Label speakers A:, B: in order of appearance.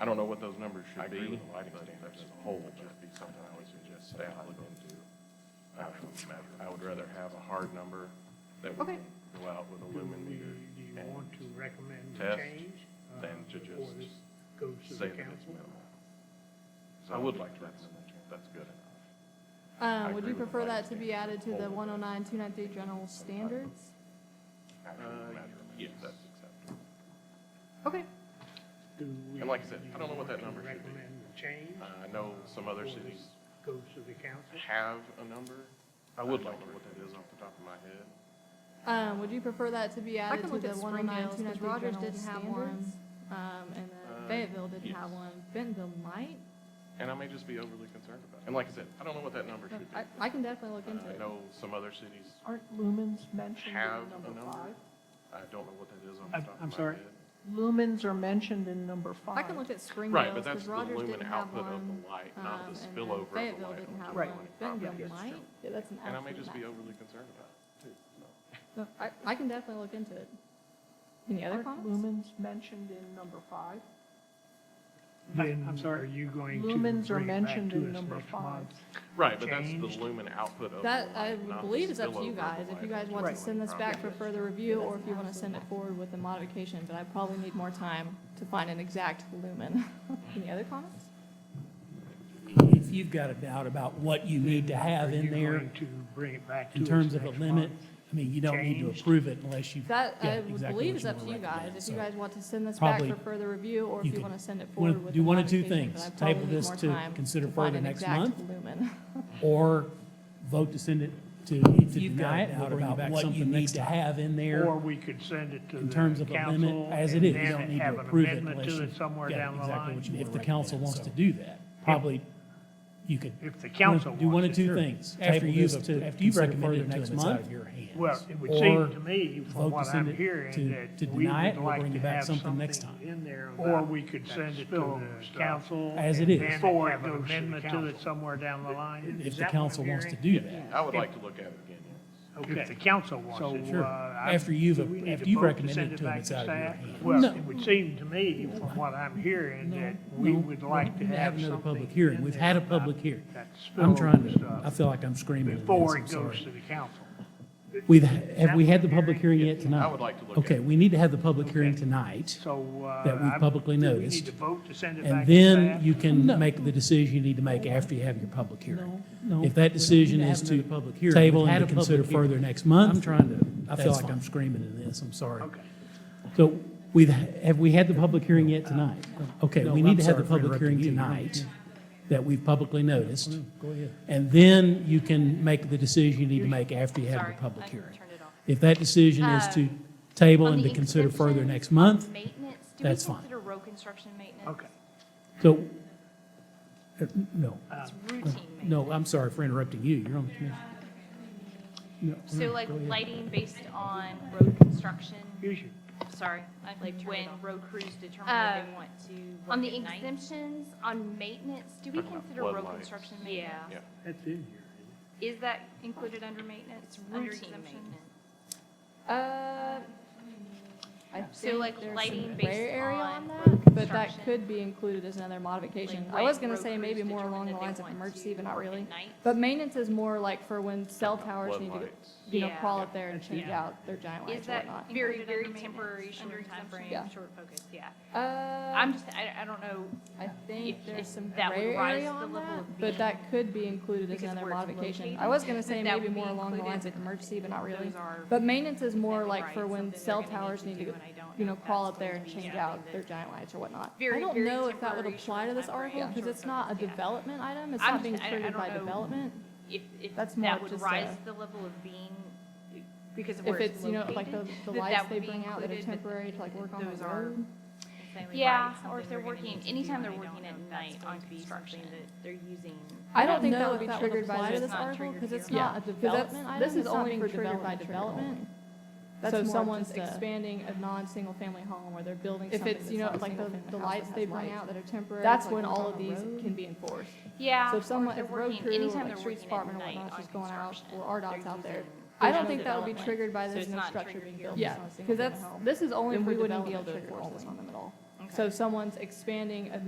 A: I don't know what those numbers should be.
B: I agree with the lighting
A: but
B: standards
A: that's
B: as a
A: whole
B: whole, would just be something I would suggest staff look into.
A: I don't know. I would rather have a hard number that we
C: Okay.
A: can go out with a
D: Do
A: lumen
D: we-
A: meter
D: Do you
A: and
D: want to recommend a
A: test
D: change? uh,
A: than to
D: before
A: just
D: this Goes to
A: say
D: the
A: that it's
D: council?
A: minimal.
B: So
A: I would like to
B: that's-
A: recommend that.
B: That's good. Uh,
C: Um, would
A: agree
C: you
A: with
C: prefer
A: that.
C: that to be added to the one oh nine, two nine three general standards?
A: Uh, yes.
B: That's acceptable.
C: Okay,
D: Do we-
A: And like I said,
D: do
A: I don't know
D: you
A: what that
D: want
A: number
D: to
A: should be.
D: Recommend a change?
A: Uh, I know some other
D: before
A: cities
D: this Goes to the council?
A: have a number. I would like to know what that is off the top of my head.
C: um, would you prefer that to be
E: I
C: added
E: can
C: to
E: look
C: the
E: at
C: one oh nine,
E: Springdale's,
C: two nine
E: because
C: three
E: Rogers
C: general
E: didn't have one.
C: standards? Um, and
A: Uh,
C: then Fayetteville didn't
A: yes.
C: have one, Bentonville might,
A: And I may just be overly concerned about it. And like I said, I don't know what that number
C: but
A: should be.
C: I, I can definitely look
A: Uh,
C: into
A: I
C: it.
A: know some other cities
F: Aren't lumens mentioned
A: have
F: in
A: a
F: number
A: number.
F: five?
A: I don't know what that is off the
D: I'm-
A: top
D: I'm
A: of my
D: sorry?
A: head.
F: Lumens are mentioned in number five.
C: I can look at
A: Right,
C: Springdale's,
A: but that's
C: because
A: the
C: Rogers
A: lumen
C: didn't have
A: output of
C: one.
A: the light, not
C: um,
A: the
C: and then
A: spillover of the light.
C: Fayetteville didn't have
A: onto
F: Right.
A: the
C: one,
A: lighting property.
C: Bentonville might, Yeah, that's an
A: And I may
C: absolute
A: just be
C: max.
A: overly concerned about it, too. so.
C: No, I, I can definitely look into it. Any other
F: Aren't
C: comments?
F: lumens mentioned in number five?
D: Then are you going to?
F: Lumens are
D: bring it back
F: mentioned
D: to
F: in
D: us
F: number
D: next
F: five.
D: month?
A: Right, but that's
D: Changed.
A: the lumen output of the
C: That, I
A: light, not the
C: believe is up to
A: spillover
C: you
A: of the
C: guys, if you
A: light
C: guys
A: onto
C: want to
F: Right.
C: send this back for further review, or if you want to send it forward with a modification, but I probably need more time to find an exact lumen. Any other comments?
G: If you've got a doubt about what you need to have
D: Are
G: in
D: you
G: there
D: going to bring it back to
G: in
D: us
G: terms of a
D: next
G: limit,
D: month?
G: I mean, you don't need to
D: Changed.
G: approve it unless you've got
C: That, I
G: exactly what
C: would
G: you
C: believe is
G: want
C: up to
G: to
C: you guys,
G: recommend.
C: if you
G: So,
C: guys want to send this back for
G: probably
C: further review, or if
G: you
C: you
G: could-
C: want to send it
G: wanna
C: forward with a
G: do one of two
C: modification,
G: things,
C: but I
G: table
C: probably need
G: this
C: more
G: to
C: time
G: consider
C: to find
G: further
C: an
G: next
C: exact
G: month.
C: lumen.
G: Or vote to send it to,
H: If
G: to
H: you've got
G: deny
H: a
G: it, we'll
H: doubt
G: bring
H: about
G: back
H: what
G: something
H: you
G: need
H: need
G: to
H: to-
G: have in there.
D: Or we could send it to
G: in
D: the
G: terms of a limit
D: council
G: as it
D: and
G: is. You
D: then
G: don't need
D: have
G: to
D: an
G: approve it
D: amendment
G: unless
D: to
G: you've
D: it somewhere
G: got
D: down the
G: exactly
D: line.
G: what you- If the
H: Right.
G: council wants to do that, probably you could.
D: If the council
G: Do one of
D: wants it,
G: two
D: sure.
G: things.
H: After
G: Table
H: you've,
G: this to
H: after you've
G: consider
H: recommended
G: further
H: it to
G: next
H: them, it's out
G: month,
H: of your hands.
D: Well, it would
G: Or
D: seem to me,
G: vote
D: from
G: to
D: what
G: send
D: I'm
G: it
D: hearing,
G: to- to
D: that we
G: deny it
D: would
G: or
D: like
G: bring
D: to
G: it back
D: have
G: something next
D: something
G: time.
D: in there
B: Or
D: Or we could send it to the council.
G: As it
D: and
G: is.
D: then
B: Before it
D: have an
B: goes to the
D: amendment to
B: council.
D: it somewhere down the line.
G: if
D: Is that
G: the
D: what I'm
G: council wants to
D: hearing?
G: do that.
A: I would like to look at it again, yes.
D: If the
B: Okay.
D: council wants it.
G: Sure.
D: uh, I-
G: After you've-
D: do we need
G: after
D: to
G: you've
D: vote to
G: recommended
D: send
G: it to them,
D: back
G: it's out of your
D: staff?
G: hands.
D: Well,
G: No.
D: it would seem to me, from what I'm hearing, that we
G: No,
D: would like to
G: we'll
D: have
G: another
D: something
G: public hearing.
D: in
G: We've
D: there
G: had a
D: about
G: public hearing.
D: that
G: I'm trying
D: spillover
G: to,
D: stuff
G: I feel like I'm screaming. at this,
D: Before
G: I'm
D: it goes
G: sorry.
D: to the council.
G: We've, have we had the public hearing yet tonight?
A: I would like to look at
G: Okay,
A: it.
G: we need to have the public hearing
D: Okay.
G: tonight,
D: So, uh.
G: That we've
D: I'm-
G: publicly
D: do We
G: noticed.
D: need to vote to send it back to
G: and then
D: staff?
G: you can make the decision you need to make after you have your public hearing.
H: No, no,
G: If
H: we need
G: that decision
H: to have
G: is to
H: another public hearing.
G: table
H: We've had
G: and
H: a
G: to consider
H: public hearing.
G: further next month.
H: I'm trying to-
G: I feel
H: that's
G: like
H: fine.
G: I'm screaming in this, I'm sorry.
D: Okay.
G: So we've, have we had the public hearing
H: Uh,
G: yet tonight? Okay,
H: No,
G: we need
H: I'm
G: to have
H: sorry
G: the
H: for
G: public
H: interrupting
G: hearing
H: you. Oh,
G: tonight that we've publicly noticed.
H: Go ahead.
G: And then you can make the decision you need to make after you have
E: Sorry,
G: the public
E: I
G: hearing.
E: turned it off.
G: If that decision is to
E: Um,
G: table
E: On
G: and
E: the
G: to consider further
E: exemption
G: next
E: of
G: month,
E: Maintenance, do we
G: that's fine.
E: consider road construction maintenance?
D: Okay.
G: so, uh, no,
E: It's routine maintenance.
G: no, I'm sorry for interrupting you, you're on the commission. No,
E: So
G: no,
E: like
G: go ahead.
E: lighting based on road construction,
D: Here's your
E: sorry, like when road crews determine if they want to
C: Uh, on
E: work
C: the
E: at night?
C: exemptions on maintenance, do
A: we Talking about consider road floodlights. construction
E: Yeah.
C: maintenance?
D: That's in here.
C: Is that included under maintenance?
E: It's routine maintenance.
C: Uh, I
E: So like lighting based
C: gray area on
E: on
C: that, but
E: construction.
C: that could be included as another modification.
E: Like,
C: I was
E: right,
C: gonna
E: road
C: say maybe
E: crews
C: more along
E: determine
C: the
E: if they
C: lines of
E: want
C: emergency,
E: to
C: but not
E: work at
C: really.
E: night.
C: But maintenance is more like for when cell towers need to get,
A: Floodlights.
C: you know,
E: Yeah.
C: crawl up there and change
E: Yeah.
C: out their giant
E: Is
C: lights or
E: that
C: whatnot.
E: very, very temporary, short
C: Yeah.
E: timeframe, short focus, yeah.
C: Uh,
E: I'm just, I, I don't know,
C: I think
E: if-
C: there's
E: if
C: some
E: that would
C: gray
E: rise
C: area
E: to the
C: on
E: level
C: that,
E: of
C: but
E: being-
C: that could be included as
E: because
C: another
E: where it's
C: modification. I
E: located,
C: was gonna say
E: that
C: maybe
E: would be
C: more along the
E: included,
C: lines of
E: but
C: emergency, but not really.
E: those are-
C: But maintenance is more
E: Never
C: like
E: mind,
C: for when
E: something
C: cell
E: they're gonna
C: towers
E: need
C: need to,
E: to do,
C: get-
E: and I don't
C: you
E: know
C: know,
E: if
C: crawl
E: that's
C: up there
E: going
C: and
E: to be
C: change
E: something
C: out their giant lights or whatnot. I
E: Very,
C: don't
E: very
C: know if that would
E: temporary,
C: apply to this
E: short-term
C: article, because it's
E: short-term,
C: not a
E: yeah.
C: development item, it's
E: I'm
C: not
E: just-
C: being
E: I- I
C: treated
E: don't
C: by
E: know.
C: development.
E: if, if
C: That's more
E: that would
C: just
E: rise
C: a-
E: to the level of being, because of
C: If
E: where it's
C: it's, you know,
E: located.
C: like the, the
E: that
C: lights
E: that
C: they
E: would be
C: bring out that are
E: included, but
C: temporary to like work on
E: those
C: the
E: are-
C: road.
E: Yeah, or if they're working, anytime they're working at night on construction, that they're using.
C: I don't think
E: know
C: that would
E: if
C: be
E: would
C: triggered by
E: apply to
C: this
E: this
C: article,
E: triggered
C: because
E: here.
C: it's not a development item, it's not being triggered by development. So if someone's expanding a non-single-family home, where they're building something If it's, you know, like the, the lights they bring out that are temporary. That's when all of these can be enforced.
E: Yeah.
C: So
E: or
C: if someone,
E: they're
C: if road
E: working-
C: crew,
E: anytime
C: like
E: they're
C: streets
E: working at
C: department or
E: night
C: whatnot,
E: on
C: just going out,
E: construction,
C: or RDOT's
E: they're
C: out there.
E: using-
C: I
E: there's
C: don't
E: no
C: think that would be
E: development.
C: triggered by
E: So
C: this
E: it's
C: new
E: not
C: structure
E: triggered
C: being
E: here.
C: built.
E: Yeah,
C: because that's, this is only
E: Then
C: for
E: we wouldn't be
C: development
E: able to
C: triggers
E: enforce
C: only.
E: this on
C: So if someone's expanding a